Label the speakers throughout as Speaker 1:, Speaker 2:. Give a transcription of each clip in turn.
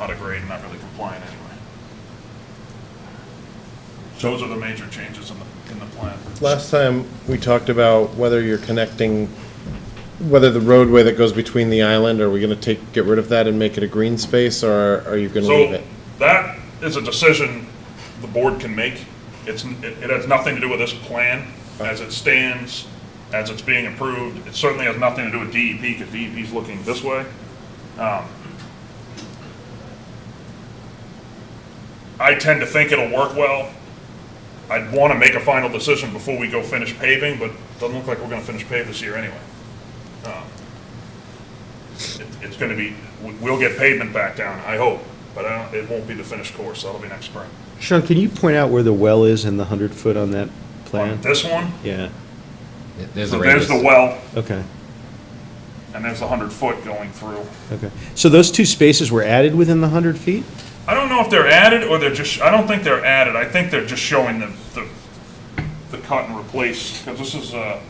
Speaker 1: out of grade, and not really compliant anyway. Those are the major changes in the, in the plan.
Speaker 2: Last time, we talked about whether you're connecting, whether the roadway that goes between the island, are we gonna take, get rid of that and make it a green space, or are you gonna leave
Speaker 1: So
Speaker 2: it?
Speaker 1: that is a decision the board can make. It's, it it has nothing to do with this plan as it stands, as it's being approved. It certainly has nothing to do with E DEP because DEP's looking this way. Um, I tend to think it'll work well. I'd want to make a final decision before we go finish paving, but doesn't look like we're going to finish pave this year anyway. Um, it- It's going to be, we- we'll get pavement back down, I hope, but I don't, it won't be the finished course, that'll be next spring.
Speaker 3: Sean, can you point out where the well is in the 100-foot on that
Speaker 1: On
Speaker 3: plan?
Speaker 1: this one,
Speaker 3: Yeah,
Speaker 4: There's
Speaker 1: so
Speaker 4: the
Speaker 1: there's
Speaker 4: radius.
Speaker 1: the well,
Speaker 3: okay,
Speaker 1: and there's the hundred foot going through.
Speaker 3: okay. So those two spaces were added within the 100 feet?
Speaker 1: I don't know if they're added or they're just, I don't think they're added, I think they're just showing the, the, the cut and replace, because this is, uh,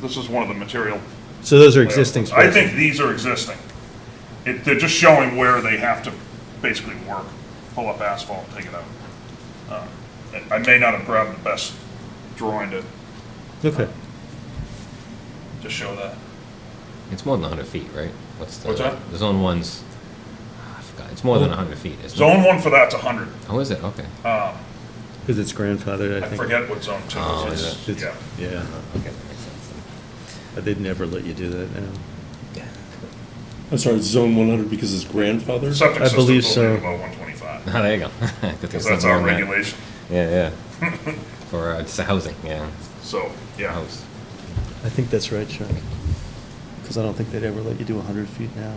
Speaker 1: this is one of the material.
Speaker 3: So those are existing
Speaker 1: I
Speaker 3: spaces?
Speaker 1: think these are existing. It, they're just showing where they have to basically work, pull up asphalt and take it out. Uh, I I may not have grabbed the best drawing to,
Speaker 3: Okay.
Speaker 1: to show that.
Speaker 4: It's more than 100 feet, right? What's the,
Speaker 1: What's that?
Speaker 4: The zone one's. ah, I forgot. It's more than 100 feet. Isn't
Speaker 1: Zone Uh, one for that's a hundred.
Speaker 4: It? Oh, is it? Okay.
Speaker 3: Because it's grandfathered, I
Speaker 1: I
Speaker 3: think.
Speaker 1: forget what zone two
Speaker 4: Oh,
Speaker 1: is.
Speaker 4: is
Speaker 3: It's-
Speaker 1: Yeah.
Speaker 3: Yeah,
Speaker 4: okay, that makes sense.
Speaker 3: but they'd never let you do that now.
Speaker 5: I'm sorry, it's zone 100 because it's grandfather?
Speaker 1: Septic
Speaker 3: I
Speaker 1: system's
Speaker 3: believe
Speaker 1: only
Speaker 3: so.
Speaker 1: about one twenty-five,
Speaker 4: Ah, there you go. Good thing
Speaker 1: because
Speaker 4: it's
Speaker 1: that's
Speaker 4: not
Speaker 1: our
Speaker 4: more than that.
Speaker 1: regulation.
Speaker 4: Yeah, yeah. For uh, just the housing, yeah.
Speaker 1: So, yeah.
Speaker 4: House.
Speaker 3: I think that's right, Chuck. Because I don't think they'd ever let you do 100 feet now.
Speaker 1: Any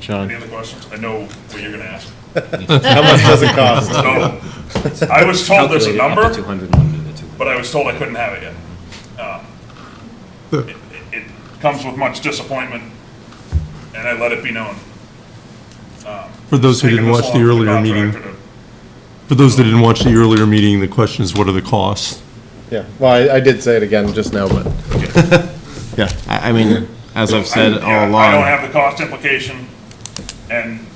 Speaker 3: Sean?
Speaker 1: other questions? I know what you're gonna ask.
Speaker 2: How much does it cost?
Speaker 1: So, I was told there's a
Speaker 4: Calculated up to
Speaker 1: number.
Speaker 4: 200 and under the 200.
Speaker 1: but I was told I couldn't have it yet. Um, It it- it comes with much disappointment, and I let it be known.
Speaker 5: For those who didn't watch the earlier meeting, for those that didn't watch the earlier meeting, the question is what are the costs?
Speaker 2: Yeah, well, I, I did say it again just now, but,
Speaker 6: Yeah, I, I mean, as I've said all
Speaker 1: I don't
Speaker 6: along,
Speaker 1: have the cost implication, and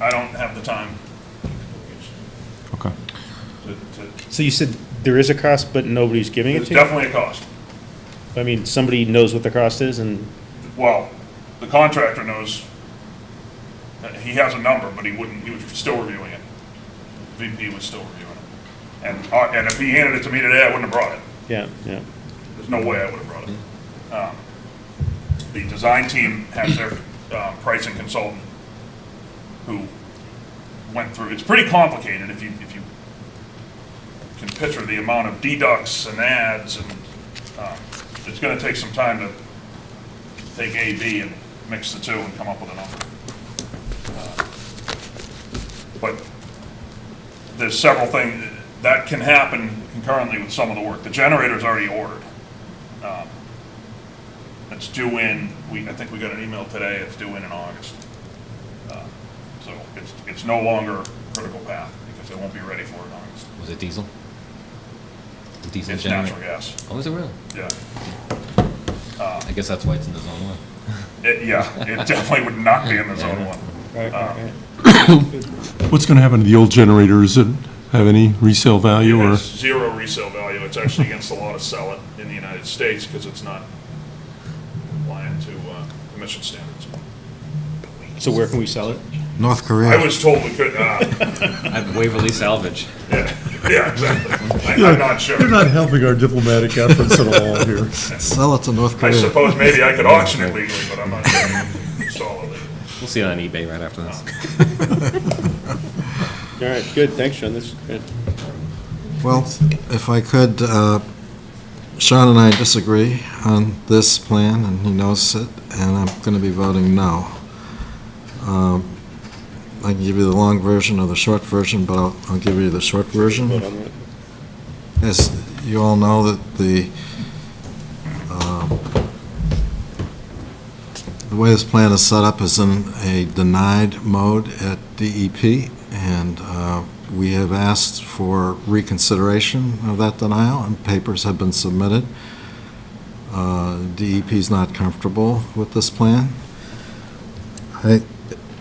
Speaker 1: I don't have the time
Speaker 6: okay,
Speaker 1: to, to-
Speaker 3: So you said there is a cost, but nobody's giving it
Speaker 1: there's
Speaker 3: to you?
Speaker 1: definitely a cost.
Speaker 3: I mean, somebody knows what the cost is and,
Speaker 1: Well, the contractor knows, uh, he has a number, but he wouldn't, he was still reviewing it. VP was still reviewing it. And, uh, and if he handed it to me today, I wouldn't have brought it.
Speaker 3: yeah, yeah.
Speaker 1: There's no way I would have brought it. Um, The design team has their um, pricing consultant who went through, it's pretty complicated if you, if you can picture the amount of deducts and ads and um, it's gonna take some time to take A, B and mix the two and come up with a number. Uh, But there's several things that can happen concurrently with some of the work. The generator's already ordered. Um, It's due in, we, I think we got an email today, it's due in in August. Uh, So it's, it's no longer critical path because it won't be ready for it in August.
Speaker 4: Was it diesel? The Diesel
Speaker 1: It's
Speaker 4: generator.
Speaker 1: natural gas,
Speaker 4: Oh, is it really?
Speaker 1: yeah.
Speaker 4: I guess that's why it's in the zone one.
Speaker 1: It, yeah, it definitely would not be in the zone one.
Speaker 3: Right, right, right.
Speaker 5: What's going to happen to the old generator? Does it have any resale value
Speaker 1: It
Speaker 5: or?
Speaker 1: has zero resale value. It's actually against the law to sell it in the United States because it's not compliant to uh, emission standards.
Speaker 3: So where can we sell it?
Speaker 6: North Korea.
Speaker 1: I was told we could, uh,
Speaker 4: At Waverly Salvage.
Speaker 1: yeah, yeah, exactly. I- I'm not sure.
Speaker 5: You're not helping our diplomatic efforts at all here.
Speaker 6: Sell it to North
Speaker 1: I suppose maybe I could auction it legally, but I'm not sure I can install it.
Speaker 4: We'll see it on eBay right after
Speaker 1: Oh.
Speaker 4: this.
Speaker 3: All right, good, thanks, Sean, this is good.
Speaker 7: Well, if I could, uh, Sean and I disagree on this plan, and he knows it, and I'm going to be voting no. Um, I can give you the long version or the short version, but I'll I'll give you the short version. As you all know, that the, um, the way this plan is set up is in a denied mode at DEP, and uh, we have asked for reconsideration of that denial, and papers have been submitted. E Uh, DEP is not comfortable with this plan. I